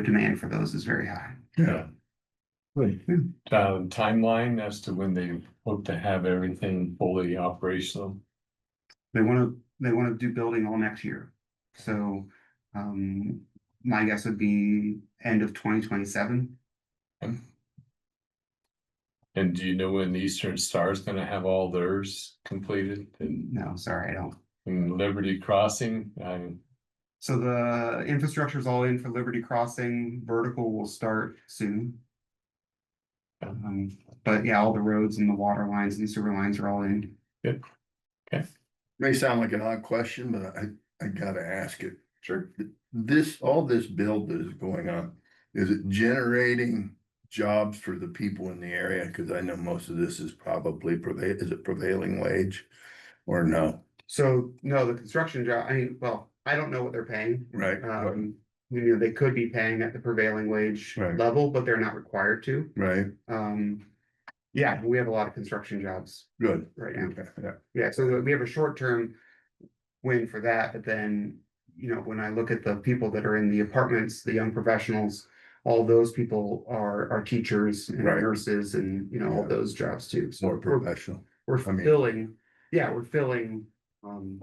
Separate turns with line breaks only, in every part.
the demand for those is very high.
Yeah.
Good.
Um, timeline as to when they hope to have everything fully operational.
They want to, they want to do building all next year. So, um, my guess would be end of twenty twenty-seven.
And do you know when Eastern Star is gonna have all theirs completed and
No, sorry, I don't.
and Liberty Crossing? I,
So the infrastructure is all in for Liberty Crossing, vertical will start soon. Um, but yeah, all the roads and the water lines and sewer lines are all in.
May sound like an odd question, but I, I gotta ask it. Sure. This, all this build that is going on, is it generating jobs for the people in the area? Cause I know most of this is probably prevail, is it prevailing wage? Or no,
So, no, the construction job, I mean, well, I don't know what they're paying.
right?
Um, you know, they could be paying at the prevailing wage
Right.
level, but they're not required to.
Right,
Um, yeah, we have a lot of construction jobs
good.
right now.
Okay, yeah.
Yeah, so we have a short term win for that, but then, you know, when I look at the people that are in the apartments, the young professionals. All those people are are teachers and
Right.
nurses and, you know, all
Yeah.
those jobs too.
More
So we're
professional.
we're
I mean-
filling, yeah, we're filling um.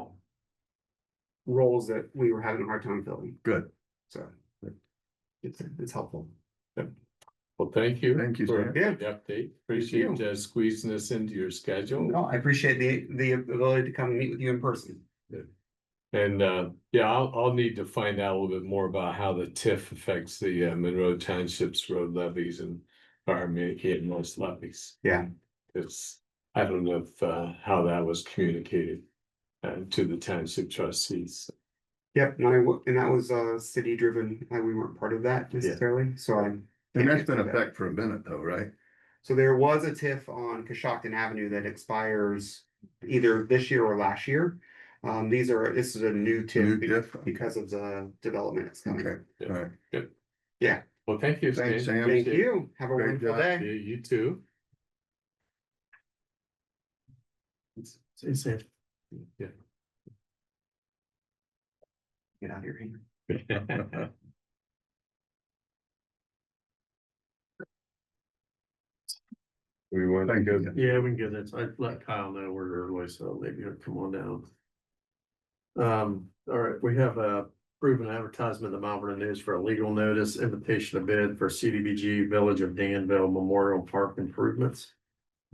Roles that we were having a hard time filling,
Good.
so. It's it's helpful.
well, thank you.
Thank you,
For
sir.
the update. Appreciate uh, squeezing us into your schedule.
No, I appreciate the the ability to come and meet with you in person.
And uh, yeah, I'll, I'll need to find out a little bit more about how the TIF affects the uh, Monroe Township's road levies and our Mankato most levies.
Yeah.
It's, I don't know if uh, how that was communicated uh, to the township trustees.
Yep, and I, wa- and that was uh city driven, like we weren't part of that necessarily, so I.
And that's been a fact for a minute though, right?
So there was a TIF on Coshocton Avenue that expires either this year or last year. Um, these are, this is a new
New
TIF be-
diff,
because of the development that's coming.
okay, all right.
Well, thank you.
Thanks,
Stan.
Sam.
Thank you, have a
Great
wonderful
job.
Yeah,
day.
You too.
Stay safe.
Yeah.
Get out of here. Henry.
We want to
Thank
go
you.
Yeah, we can get it. I let Kyle know we're early, so maybe he'll come on down. Um, all right, we have a proven advertisement in the Mount Vernon News for a legal notice, invitation to bid for CDBG Village of Danville Memorial Park improvements.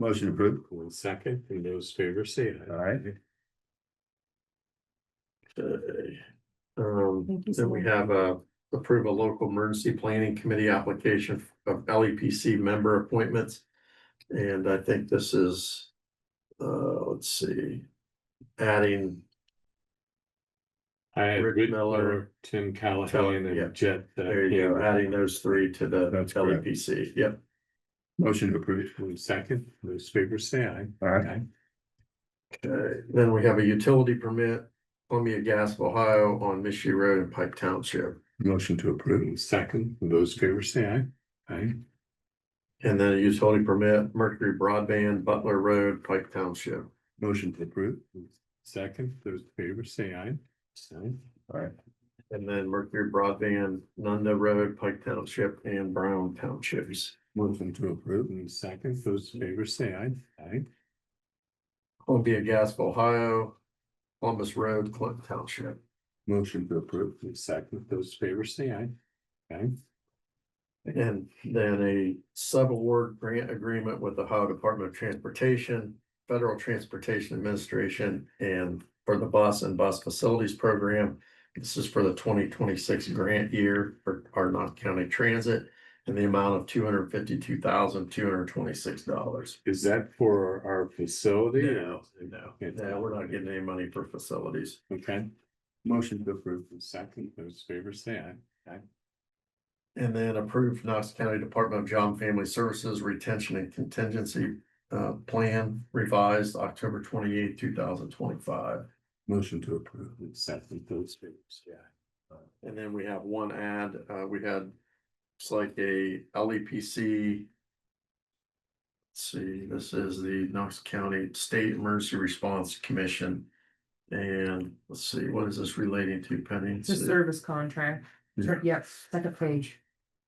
Motion approved.
one second, and those favors say
All
aye.
right.
Okay. Um,
Thank
then
you so
we
much.
have a approve a local emergency planning committee application of LEPC member appointments. And I think this is, uh, let's see, adding
I had
Rick
Rick
Miller,
Miller, Tim Callahan,
yeah.
and Jet. uh,
There you go, adding those three to the
That's correct.
LEPC, yep.
Motion approved.
One second, those favors say aye.
All right.
Okay, then we have a utility permit, Columbia Gas of Ohio on Mishu Road in Pike Township.
Motion to approve.
One second, those favors say aye. Aye.
And then a utility permit, Mercury Broadband Butler Road, Pike Township.
Motion to approve.
Second, those favors say aye. Aye.
And then Mercury Broadband, Nunda Road, Pike Township and Brown Townships.
Motion to approve.
One second, those favors say aye. Aye.
Columbia Gas of Ohio, Columbus Road, Clinton Township.
Motion to approve.
One second, those favors say aye. Aye.
And then a sub-award grant agreement with the Ohio Department of Transportation, Federal Transportation Administration, and for the bus and bus facilities program. This is for the twenty twenty-six grant year for our North County Transit and the amount of two hundred fifty-two thousand, two hundred twenty-six dollars.
Is that for our facility?
no,
It's-
no, we're not getting any money for facilities.
Okay,
Motion to approve.
One second, those favors say aye.
And then approve Knox County Department of Job and Family Services Retention and Contingency uh Plan revised October twenty eighth, two thousand twenty five.
Motion to approve.
One second, those favors say aye.
And then we have one ad, uh, we had, it's like a LEPC. Let's see, this is the Knox County State Emergency Response Commission. And let's see, what is this relating to Penny?
It's a service contract.
Yeah.
Yep, second page.